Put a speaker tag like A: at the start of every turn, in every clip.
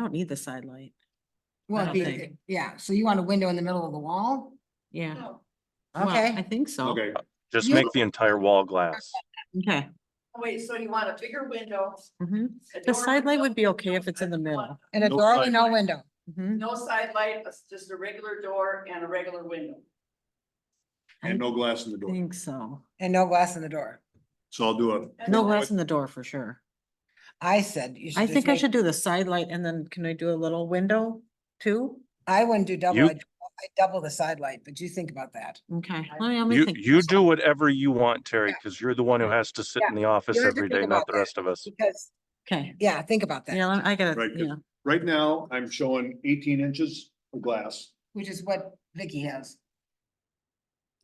A: don't need the side light.
B: Well,
A: don't
B: it'd be-
A: think.
B: yeah, so you want a window in the middle of the wall?
A: Yeah.
C: Oh,
A: Well, I
B: Okay,
A: think so.
D: Okay,
E: Just
B: You-
E: make the entire wall glass.
A: Okay.
C: Wait, so you want a bigger window?
A: Mhm.
C: a
A: The
C: door
A: side light would be
C: window,
A: okay if it's in the middle.
B: and a
E: No
B: door with
E: side
B: no window.
A: Mhm.
C: No side light, it's just a regular door and a regular window.
D: and no glass in the
A: I
D: door.
A: think so.
B: And no glass in the door.
D: So I'll do a,
C: And
A: No
C: then
A: glass in the door for sure.
B: I said you should.
A: I
B: just
A: think I
B: make-
A: should do the side light and then can I do a little window too?
B: I wouldn't do double,
E: You-
B: I double the side light, but you think about that.
A: Okay. let me- let me
E: You,
A: think
E: you
A: about
E: do whatever you want, Terry, because you're the one who has to sit
B: Yeah,
E: in the office
B: you have to
E: every
B: think
E: day, not
B: about
E: the
B: that.
E: rest of us.
B: Because,
A: it. Okay.
B: yeah, think about
A: Yeah,
B: that,
A: let- I gotta,
D: Right, 'cause-
A: yeah.
D: right now, I'm showing eighteen inches of glass.
B: which is what Vicky has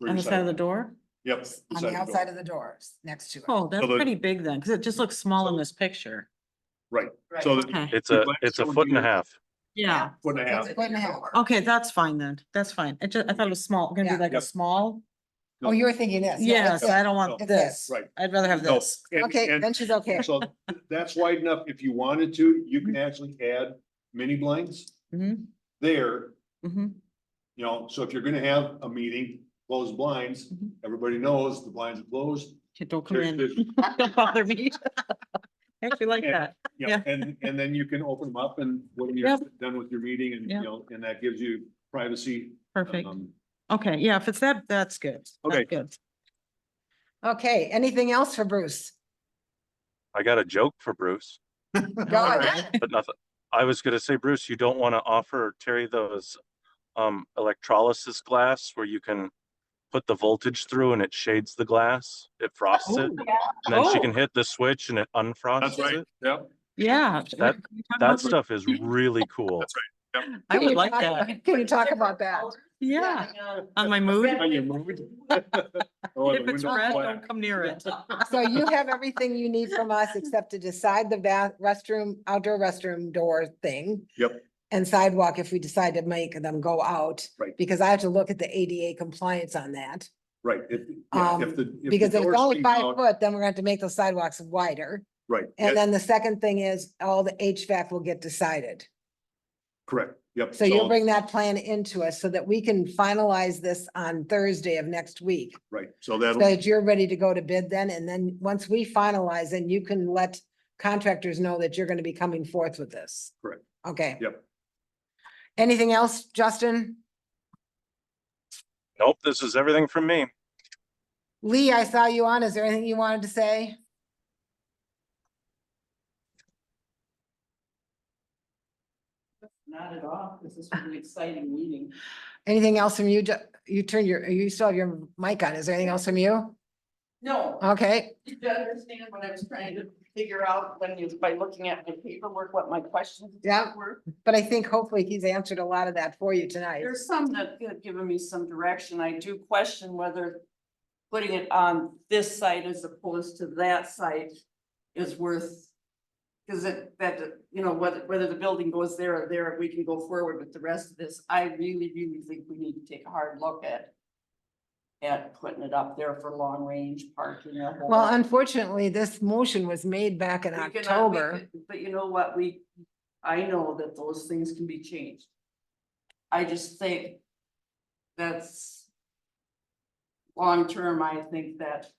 D: for
A: On the
D: your
A: side of the
D: door.
A: door?
D: Yep.
B: on
D: side
B: the
D: door.
B: outside of the doors, next to it.
A: Oh, that's
D: So the-
A: pretty big then, because it just looks small in
D: So-
A: this picture.
D: Right,
C: Right.
D: so the
A: Okay.
E: It's
D: The
E: a,
D: glass
E: it's a
D: door
E: foot and a
D: here.
E: half.
A: Yeah. Oh,
D: foot and a half.
B: Foot and a half.
A: Okay, that's fine then. That's fine. It just, I thought it was small, gonna be
B: Yeah.
A: like a
D: Yep.
A: small.
B: Oh, you were thinking this. yeah,
A: Yes,
B: it's
A: I
B: this.
A: don't want
B: It's
A: this.
B: this.
D: Right.
A: I'd rather have
D: No,
A: this.
D: and-
B: Okay,
D: and-
B: then she's okay.
D: So th- that's wide enough. If you wanted to, you can actually add mini blinds
A: Mhm,
D: there,
A: mhm.
D: you know, so if you're gonna have a meeting, close blinds,
A: Mhm.
D: everybody knows the blinds are closed.
A: Okay, Don't come in.
D: There's-
A: Don't bother me. I Actually like
D: And-
A: that.
D: you know,
A: Yeah.
D: and, and then you can open them up and when you're done with your meeting and, you
A: Yeah.
D: know, and that gives you privacy.
A: Perfect.
D: um,
A: Okay, yeah, if it's that, that's good. That's
D: Okay.
A: Good.
B: Okay, anything else for Bruce?
E: I got a joke for Bruce,
B: Go
A: All
B: ahead.
A: right.
E: but nothing. I was gonna say, Bruce, you don't want to offer Terry those um, electrolysis glass where you can put the voltage through and it shades the glass. It frosts it. And then she
A: Oh.
E: can hit the switch and it unfrosts it.
D: Yep.
A: Yeah.
E: That-
A: Can we talk about
E: That stuff is really cool.
A: that? I
B: Can
A: would
B: you
A: like
B: talk-
A: that.
B: Can you talk about that?
A: Yeah, on my mood.
D: On your mood. Or the
A: If it's
D: window
A: red,
D: flat.
A: don't come near it.
B: So you have everything you need from us except to decide the bath, restroom, outdoor restroom door thing.
D: Yep.
B: And sidewalk if we decide to make them go out.
D: Right.
B: Because I have to look at the ADA compliance on that.
D: Right, if, yeah,
B: Um,
D: if the. if the
B: Because if
D: doors
B: it's only
D: leak
B: five
D: out-
B: foot, then we're going to make those sidewalks wider.
D: Right, yeah,
B: And then the second thing is all the HVAC will get decided.
D: correct, yep.
B: So you'll bring that plan into us so that we can finalize this on Thursday of next week.
D: Right, so
B: so
D: that'll,
B: That you're ready to go to bid then, and then once we finalize, then you can let contractors know that you're gonna be coming forth with this.
D: Correct.
B: Okay.
D: Yep.
B: Anything else, Justin?
E: Nope, this is everything from me.
B: Lee, I saw you on. Is there anything you wanted to say?
C: Not at all. This is an exciting meeting.
B: Anything else from you? Ju- You turned your, you still have your mic on. Is there anything else from you?
C: No,
A: Uh,
B: Okay,
C: did you understand what I was trying to figure out when you, by looking at my paperwork, what my questions
B: Yeah.
C: were?
B: but I think hopefully he's answered a lot of that for you tonight.
C: There's some that have given me some direction. I do question whether putting it on this site as opposed to that site is worth. Cause it, that, you know, whether, whether the building goes there or there, we can go forward with the rest of this. I really, really think we need to take a hard look at. At putting it up there for long range parking. a whole
B: Well,
C: lot.
B: unfortunately, this motion was made back in
C: We cannot- we
B: October.
C: could- But you know what, we, I know that those things can be changed. I just think that's long term, I think that,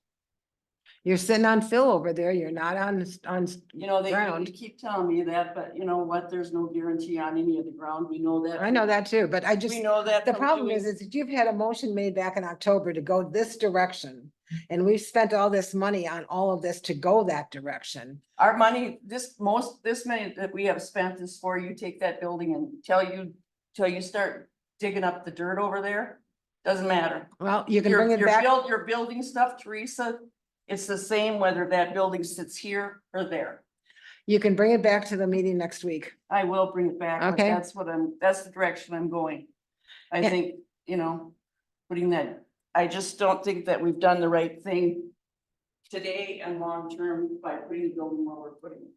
B: You're sitting on Phil over there. You're not on, on
C: you know, they they
B: ground.
C: keep telling me that, but you know what, there's no guarantee on any of the ground, we know that.
B: I know
C: from-
B: that too, but I just,
C: We know that.
B: the
C: from
B: problem
C: doing-
B: is, is that you've had a motion made back in October to go this direction. And we've spent all this money on all of this to go that direction.
C: Our money, this most, this money that we have spent is for you take that building and tell you, till you start digging up the dirt over there, doesn't matter.
B: Well, you can bring
C: Your,
B: it
C: your
B: back.
C: build, your building stuff, Teresa, it's the same whether that building sits here or there.
B: You can bring it back to the meeting next week.
C: I will bring it back. but
B: Okay.
C: That's what I'm, that's the direction I'm going. I
B: And-
C: think, you know, putting that, I just don't think that we've done the right thing today and long-term by putting the building where we're putting it.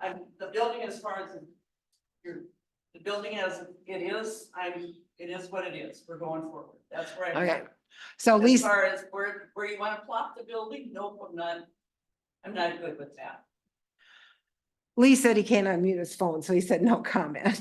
C: I'm, the building as far as your, the building as it is, I'm, it is what it is. We're going forward. That's where I'm.
B: Okay. So
C: As
B: Lisa,
C: far as where, where you wanna plop the building, nope, I'm not, I'm not good with that.
B: Lee said he can't unmute his phone, so he said no comment.